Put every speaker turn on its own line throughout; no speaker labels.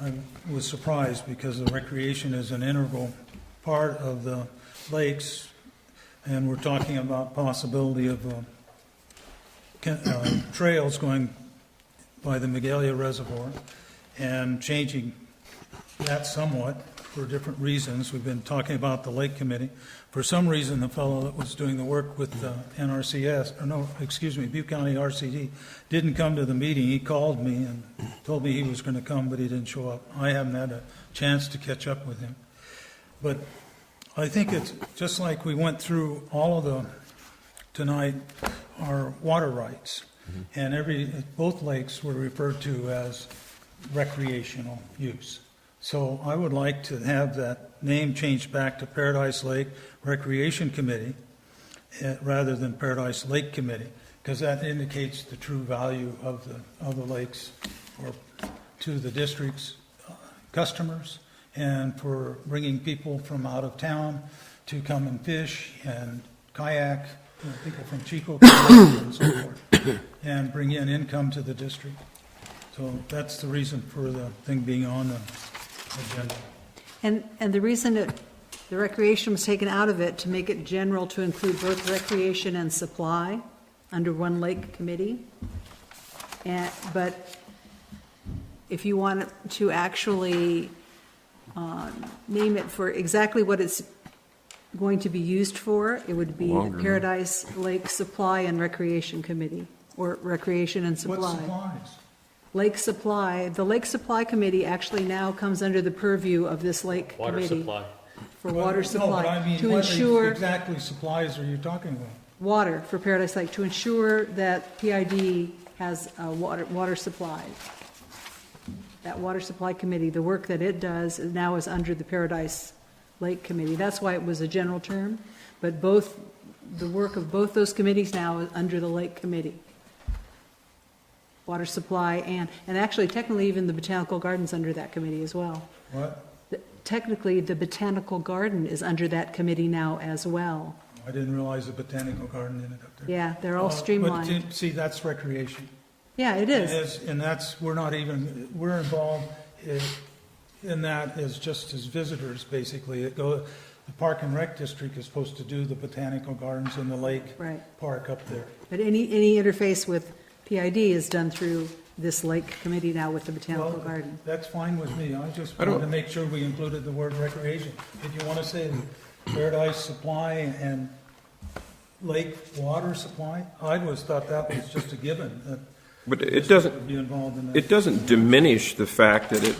I was surprised because the recreation is an integral part of the lakes, and we're talking about possibility of uh, can- uh, trails going by the Megalia Reservoir and changing that somewhat for different reasons. We've been talking about the Lake Committee. For some reason, the fellow that was doing the work with uh, NRCS, or no, excuse me, Butte County RCD, didn't come to the meeting. He called me and told me he was going to come, but he didn't show up. I haven't had a chance to catch up with him. But I think it's, just like we went through all of the, tonight, our water rights. And every, both lakes were referred to as recreational use. So I would like to have that name changed back to Paradise Lake Recreation Committee eh, rather than Paradise Lake Committee, because that indicates the true value of the, of the lakes or to the district's uh, customers and for bringing people from out of town to come and fish and kayak, you know, people from Chico come and so forth, and bring in income to the district. So that's the reason for the thing being on the agenda.
And, and the reason it, the recreation was taken out of it, to make it general, to include both recreation and supply under one lake committee. And, but if you want to actually um, name it for exactly what it's going to be used for, it would be
Longer, huh?
Paradise Lake Supply and Recreation Committee, or Recreation and
What supplies?
Lake Supply, the Lake Supply Committee actually now comes under the purview of this Lake
Water
Committee
supply.
for water
No, but I
supply,
mean,
to
what
ensure,
exactly supplies are you talking about?
water for Paradise Lake, to ensure that PID has a water, water supply. That Water Supply Committee, the work that it does is now is under the Paradise Lake Committee. That's why it was a general term, but both, the work of both those committees now is under the Lake Committee. Water Supply and, and actually technically even the Botanical Gardens under that committee as well.
What?
The- Technically, the Botanical Garden is under that committee now as well.
I didn't realize the botanical garden ended up there.
Yeah, they're all
Uh, but
streamlined.
t- See, that's recreation.
Yeah, it
It
is.
is, and that's, we're not even, we're involved i- in that as just as visitors, basically. It go, the Park and Rec District is supposed to do the botanical gardens and the lake
Right.
park up there.
But any, any interface with PID is done through this lake committee now with the Botanical
Well,
Garden.
That's fine with me. I just
I don't-
wanted to make sure we included the word recreation. If you want to say paradise supply and lake water supply, I always thought that was just a given, that
But it doesn't,
would be involved in
it
that.
doesn't diminish the fact that it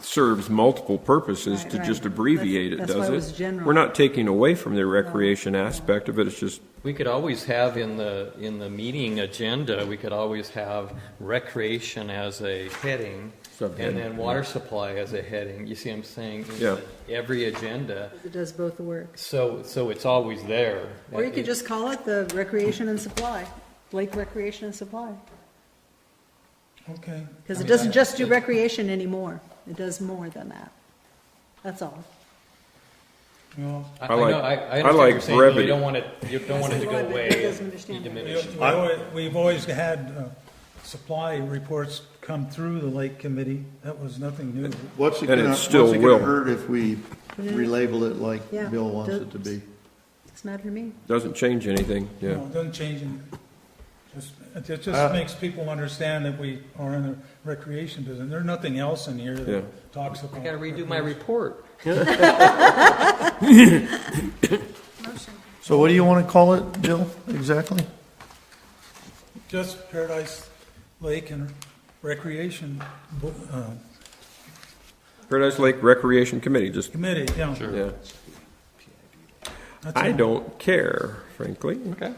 serves multiple purposes
Right,
to
right.
just abbreviate it,
That's- that's
does
why it
it?
was general.
We're not taking away from the recreation aspect of it, it's just,
We could always have in the, in the meeting agenda, we could always have recreation as a heading, and
Subheading.
then water supply as a heading, you see what I'm saying? In
Yeah.
Every agenda,
It does both the work.
so, so it's always there.
Or you could
It-
just call it the Recreation and Supply, Lake Recreation and Supply.
Okay.
Because it doesn't just do recreation anymore. It does more than that. That's all.
Well,
I I
I
know,
like-
I, I
I
understand what
like
you're saying, but you
brevity.
don't want it, you don't want it to go
Brevity
away.
doesn't
and
understand
be
that.
diminished.
we always- We've always had uh, supply reports come through the lake committee. That was nothing new.
What's it
And it
gonna, what's it
still
gonna
will.
hurt if we relabel it like
Yeah.
Bill wants
Does-
it to be?
It's not to me.
doesn't change anything, yeah.
No, it doesn't change anything. Just- It it
Uh,
just makes people understand that we are in the recreation business. There's nothing else in here
Yeah.
that talks about.
I gotta redo my report.
So what do you wanna call it, Bill, exactly?
Just Paradise Lake and Recreation Bo- uh,
Paradise Lake Recreation Committee, just,
Committee, yeah.
yeah.
That's
I
all.
don't care, frankly. Okay.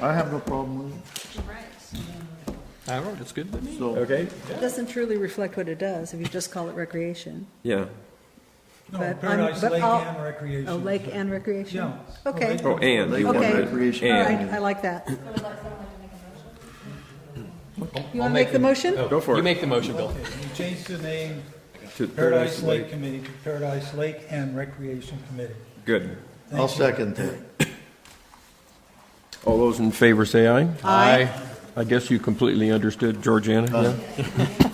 I have no problem with it,
I don't, it's good.
so.
Okay?
It doesn't truly reflect what it does if you just call it recreation.
Yeah.
No,
but I'm-
Paradise
but
Lake
I'll-
and Recreation.
Oh, lake and recreation?
Yeah.
Okay.
Oh, and, you
Okay.
wanted it,
Recreation.
All right,
and.
I like that. You
I'll
want to make the motion?
Oh,
Go for
You
it.
make the motion, Bill.
Okay, you changed the name
to
Paradise Lake Committee to Paradise Lake and Recreation Committee.
Good.
I'll second that.
All those in favor say aye.
Aye.
I guess you completely understood Georgiana, yeah?